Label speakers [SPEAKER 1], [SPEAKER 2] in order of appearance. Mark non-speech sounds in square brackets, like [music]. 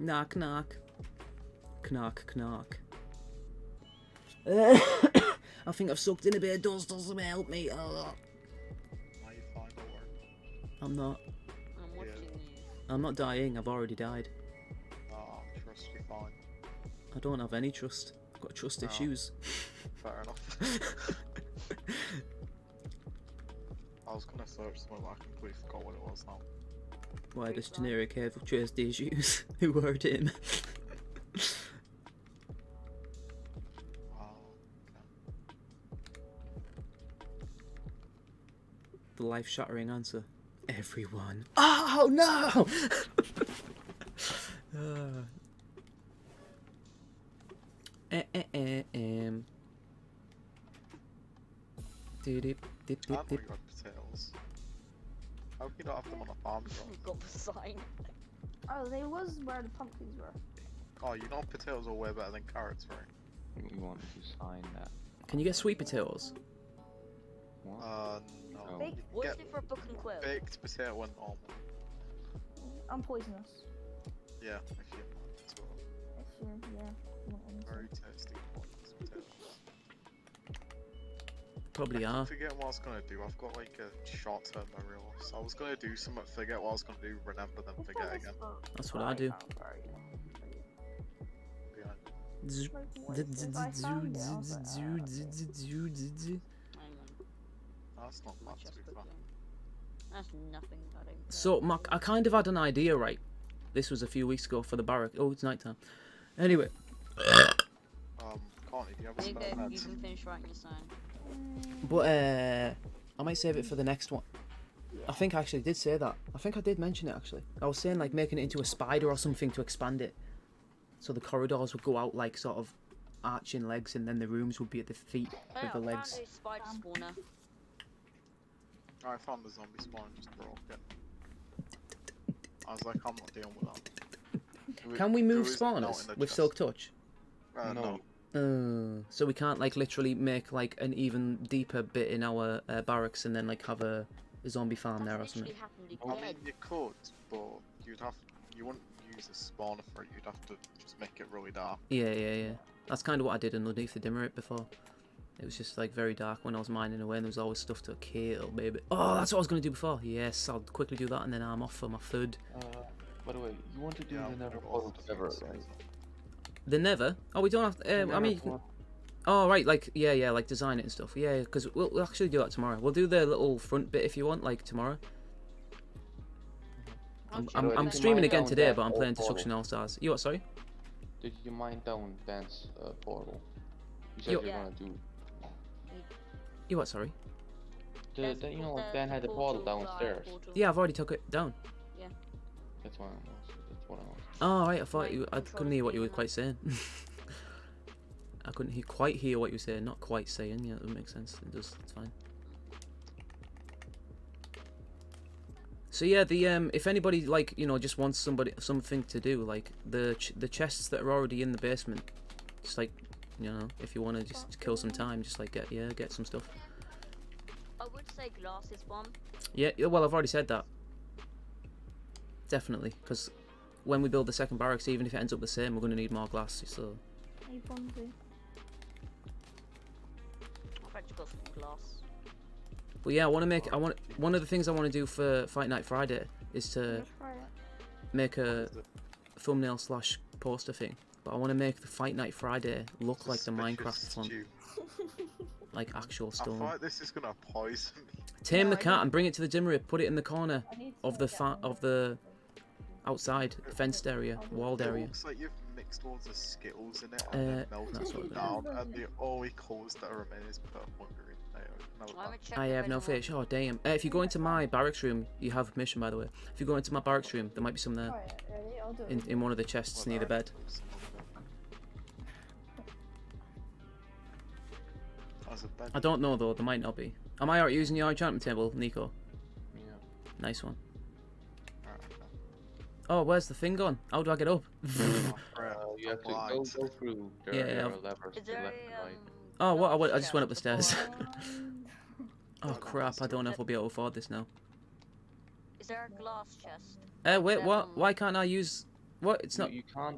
[SPEAKER 1] Knock, knock. Knock, knock. [coughs] I think I've sucked in a bit of dust or something. Help me. Ugh.
[SPEAKER 2] Why you falling over?
[SPEAKER 1] I'm not.
[SPEAKER 3] I'm
[SPEAKER 2] Yeah.
[SPEAKER 3] watching you.
[SPEAKER 1] I'm not dying. I've already died.
[SPEAKER 2] Oh, trust you falling.
[SPEAKER 1] I don't have any trust. I've got trust
[SPEAKER 2] Oh.
[SPEAKER 1] issues. [laughs]
[SPEAKER 2] Fair enough. I was gonna search something, but I completely forgot what it was now.
[SPEAKER 1] Why
[SPEAKER 3] Pretty
[SPEAKER 1] does
[SPEAKER 3] bad.
[SPEAKER 1] generic have trust issues? [laughs] Who hurt him?
[SPEAKER 2] Wow.
[SPEAKER 1] the life-shattering answer. Everyone. Oh no! uh. [laughs] Eh, eh, eh, em. Doo-doo, dip,
[SPEAKER 2] I
[SPEAKER 1] dip,
[SPEAKER 2] know
[SPEAKER 1] dip.
[SPEAKER 2] you had potatoes. How hope you don't have them on a farm,
[SPEAKER 3] We've
[SPEAKER 2] bro.
[SPEAKER 3] [laughs] got the sign.
[SPEAKER 4] Oh, they was where the pumpkins were.
[SPEAKER 2] Oh, you know potatoes are way better than carrots, right?
[SPEAKER 5] You want to sign that?
[SPEAKER 1] Can you get sweet potatoes?
[SPEAKER 5] What?
[SPEAKER 2] Uh, no.
[SPEAKER 5] Oh.
[SPEAKER 2] You
[SPEAKER 4] Baked-
[SPEAKER 2] can
[SPEAKER 3] What's
[SPEAKER 2] get
[SPEAKER 3] it for a book and quill?
[SPEAKER 2] baked potato and normal.
[SPEAKER 4] I'm poisonous.
[SPEAKER 2] Yeah, if you want. It's all
[SPEAKER 4] If you're, yeah. you want anything.
[SPEAKER 2] very tasty. qualities, potatoes.
[SPEAKER 1] Probably
[SPEAKER 2] I
[SPEAKER 1] are.
[SPEAKER 2] forget what I was gonna do. I've got like a short term memory loss. I was gonna do something, forget what I was gonna do, remember, then
[SPEAKER 4] Let's try
[SPEAKER 2] forget
[SPEAKER 4] this
[SPEAKER 2] again.
[SPEAKER 4] book.
[SPEAKER 1] That's what I do.
[SPEAKER 4] found very long.
[SPEAKER 2] Be like,
[SPEAKER 1] Zzz.
[SPEAKER 4] Like, what is this? I found it, I was like, ah, okay.
[SPEAKER 1] So,
[SPEAKER 3] Hang on,
[SPEAKER 2] That's not
[SPEAKER 3] my
[SPEAKER 2] bad to
[SPEAKER 3] chest
[SPEAKER 2] be
[SPEAKER 3] book
[SPEAKER 2] fair.
[SPEAKER 3] then. That's nothing that I don't
[SPEAKER 1] Mark, I kind of had an idea, right? This was a few weeks ago for the barrack. Oh, it's nighttime. Anyway,
[SPEAKER 2] Um, Connie, do you have a
[SPEAKER 3] There you
[SPEAKER 2] spare
[SPEAKER 3] go, you
[SPEAKER 2] meds?
[SPEAKER 3] can finish writing your sign.
[SPEAKER 4] Mm,
[SPEAKER 1] but uh, I might save it for the next one. I think I actually did say that. I think I did mention it actually. I was saying like making it into a spider or something to expand it, so the corridors would go out like sort of arching legs, and then the rooms would be at the feet
[SPEAKER 3] Hey, I
[SPEAKER 1] of the
[SPEAKER 3] found
[SPEAKER 1] legs.
[SPEAKER 3] a spider
[SPEAKER 4] Um,
[SPEAKER 3] spawner.
[SPEAKER 2] I found the zombie spawn and just broke it. I was like, I'm not dealing with that. Do
[SPEAKER 1] Can we
[SPEAKER 2] do
[SPEAKER 1] move
[SPEAKER 2] is not in
[SPEAKER 1] spawners
[SPEAKER 2] the
[SPEAKER 1] with
[SPEAKER 2] chest.
[SPEAKER 1] silk touch?
[SPEAKER 2] Uh, no.
[SPEAKER 5] No.
[SPEAKER 1] Uh, so we can't like literally make like an even deeper bit in our uh, barracks and then like have a, a zombie farm there or
[SPEAKER 3] That's
[SPEAKER 1] something.
[SPEAKER 3] literally happened
[SPEAKER 5] Oh,
[SPEAKER 2] I
[SPEAKER 3] again.
[SPEAKER 2] mean, you could, but you'd have, you wouldn't use a spawner for it. You'd have to just make it really dark.
[SPEAKER 1] Yeah, yeah, yeah. That's kind of what I did underneath the dimmerate before. It was just like very dark when I was mining away, and there was always stuff to kill, baby. Oh, that's what I was gonna do before. Yes, I'll quickly do that, and then I'm off for my food.
[SPEAKER 5] Uh, by the way, you want to do
[SPEAKER 2] Yeah,
[SPEAKER 5] the never
[SPEAKER 2] it was
[SPEAKER 5] puzzle
[SPEAKER 2] the
[SPEAKER 5] together,
[SPEAKER 2] same
[SPEAKER 5] right?
[SPEAKER 2] size.
[SPEAKER 1] The never. Oh, we don't have.
[SPEAKER 5] The
[SPEAKER 1] To, um, I
[SPEAKER 5] never
[SPEAKER 1] mean, you can-
[SPEAKER 5] puzzle.
[SPEAKER 1] oh right, like yeah, yeah, like design it and stuff. Yeah, because we'll, we'll actually do that tomorrow. We'll do the little front bit if you want, like tomorrow.
[SPEAKER 3] I'll
[SPEAKER 1] I'm,
[SPEAKER 3] check
[SPEAKER 1] I'm,
[SPEAKER 3] it
[SPEAKER 5] Did
[SPEAKER 1] I'm
[SPEAKER 5] you
[SPEAKER 3] out.
[SPEAKER 1] streaming
[SPEAKER 5] mine
[SPEAKER 1] again
[SPEAKER 5] down Oh,
[SPEAKER 1] today,
[SPEAKER 5] that
[SPEAKER 1] but I'm
[SPEAKER 5] old
[SPEAKER 1] playing
[SPEAKER 5] portal?
[SPEAKER 1] Destruction All Stars. You what? Sorry.
[SPEAKER 5] Did you mind down dance uh, portal? You said
[SPEAKER 1] Yo-
[SPEAKER 5] you're
[SPEAKER 3] Yeah.
[SPEAKER 5] gonna do.
[SPEAKER 1] You what? Sorry.
[SPEAKER 5] The,
[SPEAKER 3] There's
[SPEAKER 5] the, you know,
[SPEAKER 3] the
[SPEAKER 5] like Dan had the portal
[SPEAKER 3] portal, the
[SPEAKER 5] downstairs.
[SPEAKER 3] portal.
[SPEAKER 1] Yeah, I've already took it down.
[SPEAKER 5] That's what I was. That's what I was.
[SPEAKER 1] Oh right, I thought
[SPEAKER 3] Right,
[SPEAKER 1] you. I
[SPEAKER 3] control
[SPEAKER 1] couldn't hear what you were
[SPEAKER 3] panel.
[SPEAKER 1] quite saying. [laughs] I couldn't hear, quite hear what you were saying. Not quite saying. Yeah, that makes sense. It does. It's fine. So yeah, the um, if anybody like you know just wants somebody something to do, like the ch- the chests that are already in the basement, just like you know if you want to just kill some time, just like get yeah get some stuff.
[SPEAKER 3] I would say glass is bomb.
[SPEAKER 1] Yeah, yeah, well, I've already said that. Definitely, because when we build the second barracks, even if it ends up the same, we're going to need more glass. So
[SPEAKER 4] you probably-
[SPEAKER 3] I've actually got some glass.
[SPEAKER 5] Oh,
[SPEAKER 1] But yeah, I want to make. I want one of the things I want to do for Fight Night Friday is to
[SPEAKER 4] Let's try it.
[SPEAKER 1] make a thumbnail slash poster thing. But I want to make the Fight Night Friday look like the
[SPEAKER 2] Suspicious
[SPEAKER 1] Minecraft font,
[SPEAKER 2] stew.
[SPEAKER 1] like actual
[SPEAKER 2] I
[SPEAKER 1] stone.
[SPEAKER 2] thought this is gonna poison me.
[SPEAKER 1] Tame
[SPEAKER 4] No,
[SPEAKER 1] the
[SPEAKER 4] I
[SPEAKER 1] cat
[SPEAKER 4] don't-
[SPEAKER 1] and bring it to the dimmery. Put it in the corner
[SPEAKER 4] I need to
[SPEAKER 1] of the
[SPEAKER 4] get
[SPEAKER 1] fa-
[SPEAKER 4] one
[SPEAKER 1] of
[SPEAKER 4] more.
[SPEAKER 1] the uh, outside fenced area, walled
[SPEAKER 2] It
[SPEAKER 1] area.
[SPEAKER 2] looks like you've mixed loads of Skittles in it and
[SPEAKER 1] Uh,
[SPEAKER 2] then melted
[SPEAKER 1] that's what
[SPEAKER 2] them
[SPEAKER 1] it
[SPEAKER 2] down,
[SPEAKER 4] is.
[SPEAKER 2] and the only colours that are remaining is purple and green. I don't know
[SPEAKER 3] I'm
[SPEAKER 2] that.
[SPEAKER 3] gonna check
[SPEAKER 1] I
[SPEAKER 3] if
[SPEAKER 1] have no
[SPEAKER 3] anyone-
[SPEAKER 1] fish. Oh damn! Uh, if you go into my barracks room, you have permission, by the way. If you go into my barracks room, there might be some there
[SPEAKER 4] Try it, ready? I'll do it.
[SPEAKER 1] in, in one of the chests
[SPEAKER 2] Well,
[SPEAKER 1] near the
[SPEAKER 2] there are
[SPEAKER 1] bed.
[SPEAKER 2] some of them. As a bed.
[SPEAKER 1] I don't know though. There might not be. Am I alright using your enchantment table, Nico?
[SPEAKER 5] Yeah.
[SPEAKER 1] Nice one.
[SPEAKER 2] Alright, okay.
[SPEAKER 1] Oh, where's the thing gone? How do I get up? [laughs]
[SPEAKER 2] Oh, crap.
[SPEAKER 5] Uh, you have to
[SPEAKER 2] Applied.
[SPEAKER 5] go, go through. There
[SPEAKER 1] Yeah,
[SPEAKER 5] there
[SPEAKER 1] yeah.
[SPEAKER 5] are levers
[SPEAKER 3] Is
[SPEAKER 5] to
[SPEAKER 3] there
[SPEAKER 5] left
[SPEAKER 3] a,
[SPEAKER 5] and right.
[SPEAKER 1] Oh,
[SPEAKER 3] um,
[SPEAKER 1] what? I
[SPEAKER 3] glass
[SPEAKER 1] went- I just went up the
[SPEAKER 3] shelf
[SPEAKER 1] stairs.
[SPEAKER 3] before-
[SPEAKER 4] Um,
[SPEAKER 1] Oh crap! I don't know if we'll be able to afford this now.
[SPEAKER 3] [laughs] Is there a glass chest?
[SPEAKER 1] Eh, wait,
[SPEAKER 3] That
[SPEAKER 1] what?
[SPEAKER 3] one.
[SPEAKER 1] Why can't I use What? It's
[SPEAKER 5] You-
[SPEAKER 1] not.
[SPEAKER 5] You can't